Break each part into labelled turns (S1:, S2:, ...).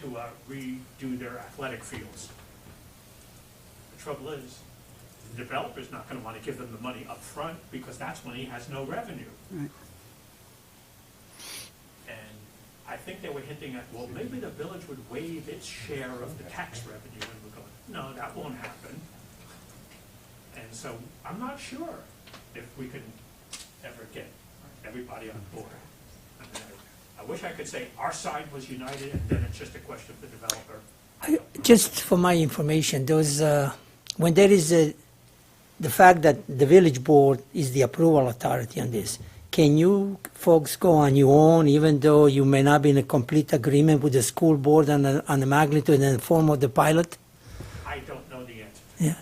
S1: to uh, redo their athletic fields. The trouble is, the developer's not gonna wanna give them the money up front because that's when he has no revenue.
S2: Right.
S1: And I think they were hinting at, well, maybe the village would waive its share of the tax revenue, and we're going, no, that won't happen. And so I'm not sure if we can ever get everybody on board. I mean, I I wish I could say our side was united, and then it's just a question of the developer. I don't know.
S2: Just for my information, those, uh, when there is a, the fact that the village board is the approval authority on this, can you folks go on your own, even though you may not be in a complete agreement with the school board on the, on the magnitude and form of the pilot?
S1: I don't know the answer.
S2: Yeah,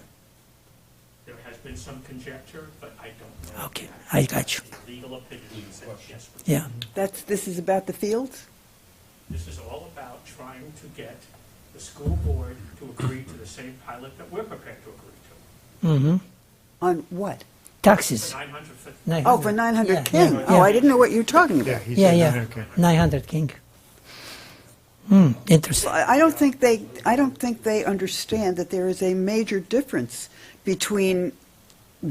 S1: There has been some conjecture, but I don't know.
S2: okay, I got you,
S1: The Legal opinion said yes. we
S2: yeah.
S3: That's, this is about the fields?
S1: This is all about trying to get the school board to agree to the same pilot that we're prepared to agree
S2: Mm-hmm,
S3: On what?
S1: to,
S2: taxes.
S1: for nine hundred fifty.
S2: 900.
S3: Oh, for
S2: Yeah,
S3: 900
S2: yeah,
S3: King?
S2: yeah.
S3: Oh, I didn't know what you were talking about.
S4: he
S2: Yeah,
S4: said
S2: yeah,
S4: 900K.
S2: nine hundred king. Hmm, interesting,
S3: I I don't think they, I don't think they understand that there is a major difference between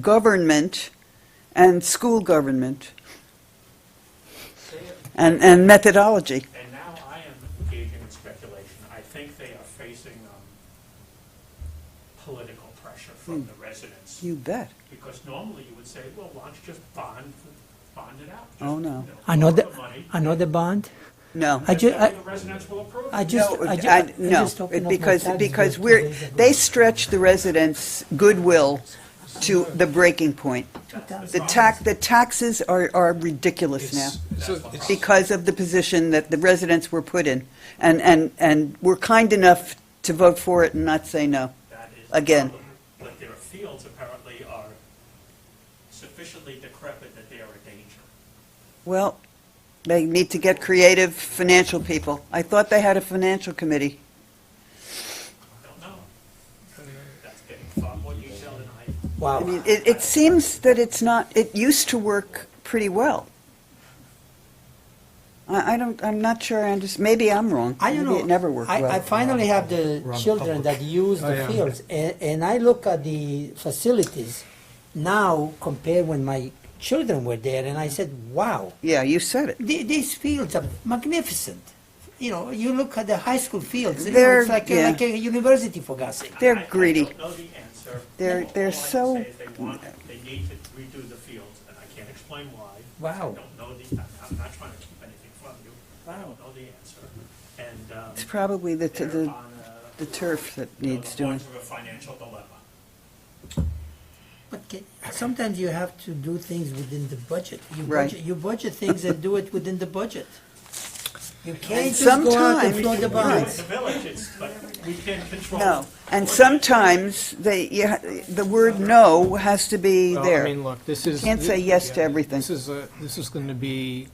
S3: government and school government and, and methodology.
S1: And now I am engaging in speculation. I think they are facing, um, political pressure
S3: Hmm.
S1: from the residents.
S3: You bet.
S1: Because normally you would say, well, why don't you just bond, bond it out? Just,
S3: Oh, no.
S1: you know, borrow
S2: another,
S1: the money,
S2: another bond?
S3: No.
S2: I ju,
S1: that way
S2: I,
S1: The residents will approve.
S2: I
S1: it.
S2: just,
S3: No,
S2: I ju-
S3: I-
S2: I just.
S3: No,
S2: opened up my
S3: because,
S2: tabs
S3: because
S2: two
S3: we're,
S2: days ago.
S3: they stretch the residents' goodwill to the breaking point. The tax, the taxes are, are ridiculous now.
S5: So it's-
S3: because of the position that the residents were put in, and, and, and were kind enough to vote for it and not say no.
S1: That is the
S3: Again.
S1: problem. But their fields apparently are sufficiently decrepit that they are a danger.
S3: Well, they need to get creative financial people. I thought they had a financial committee.
S1: I don't know. That's getting far more detailed than I.
S2: Wow.
S3: I mean, it, it seems that it's not, it used to work pretty well. I, I don't, I'm not sure, I just, maybe I'm wrong.
S2: I don't know.
S3: Maybe it never worked
S2: I,
S3: well.
S2: I finally have the
S4: Run
S2: children that use the
S4: Oh, yeah.
S2: fields, and, and I look at the facilities now compared when my children were there, and I said, "Wow,
S3: Yeah, you said it.
S2: the- these fields are magnificent." You know, you look at the high school fields; you know,
S3: They're-
S2: it's like, a,
S3: yeah.
S2: like a university for God's sake.
S3: They're
S1: I- I
S3: greedy.
S1: don't know the answer.
S3: They're-
S1: All-
S3: they're
S1: all I can
S3: so-
S1: say is they want- They need to redo the fields, and I can't explain why.
S2: Wow.
S1: I don't know the, I'm- I'm not trying to keep anything from you. I don't know the answer. And, um,
S3: It's probably the,
S1: they're
S3: the,
S1: on a-
S3: the turf that
S1: you know,
S3: needs
S1: the
S3: doing.
S1: verge of a financial dilemma.
S2: But ca- sometimes you have to do things within the budget. You
S3: Right.
S2: budget, you budget things and do it within the budget. You can't
S3: And
S2: just go out and float
S3: sometimes-
S2: the
S3: Right.
S1: You know,
S2: bonds.
S1: it's The village, it's, but we can't control.
S3: No, and
S1: what-
S3: sometimes they, you ha- the word no has to be
S5: Well, I
S3: there.
S5: mean, look, this is.
S3: Can't say yes to everything.
S5: This is, a- this is going to be,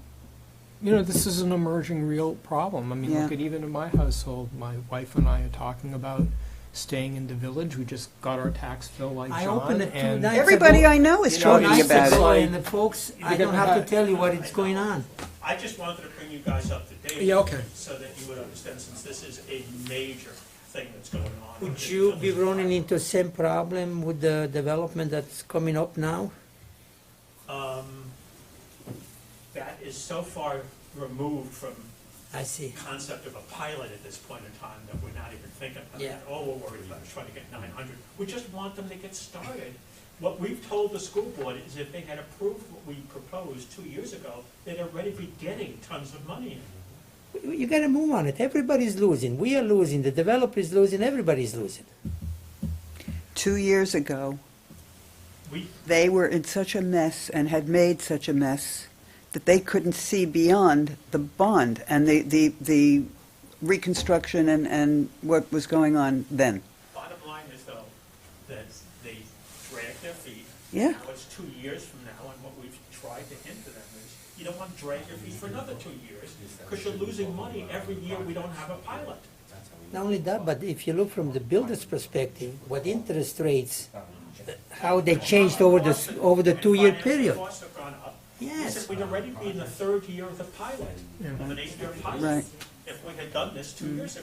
S5: you know, this is an emerging real problem. I mean, look
S3: Yeah.
S5: at even in my household, my wife and I are talking about staying in the village. We just got our tax bill like John.
S2: I opened it two
S5: and-
S2: nights
S3: Everybody I know is
S2: You know,
S3: talking
S2: nice
S3: about it.
S2: employee,
S5: it.
S2: And the folks, I
S5: You're
S2: don't
S5: gonna
S2: have to
S5: have-
S2: tell you what is going on.
S1: I just wanted to bring you guys up to date.
S5: Yeah, okay.
S1: So that you would understand, since this is a major thing that's going on.
S2: Would you be running into same problem with the development that's coming up now?
S1: Um, That is so far removed from
S2: I see.
S1: concept of a pilot at this point in time that we're not even thinking about.
S2: Yeah.
S1: All we're worried about is trying to get nine hundred. We just want them to get started. What we've told the school board is if they had approved what we proposed two years ago, they'd already be getting tons of money in.
S2: You gotta move on it. Everybody's losing. We are losing, the developer is losing, everybody's losing.
S3: Two years ago,
S1: We,
S3: they were in such a mess and had made such a mess that they couldn't see beyond the bond and the, the, the reconstruction and, and what was going on then.
S1: Bottom line is though, that they drag their feet.
S3: Yeah.
S1: What's two years from now, and what we've tried to hint to them is, you don't want to drag your feet for another two years, because you're losing money every year we don't have a pilot.
S2: Not only that, but if you look from the builder's perspective, what interest rates, how they changed over the, s- over the
S1: And
S2: two-year
S1: financing
S2: period.
S1: costs have gone up. We
S2: Yes.
S1: said we'd already be in the third year of the pilot, of an eight-year pilot.
S3: Right.
S1: If we had done this two years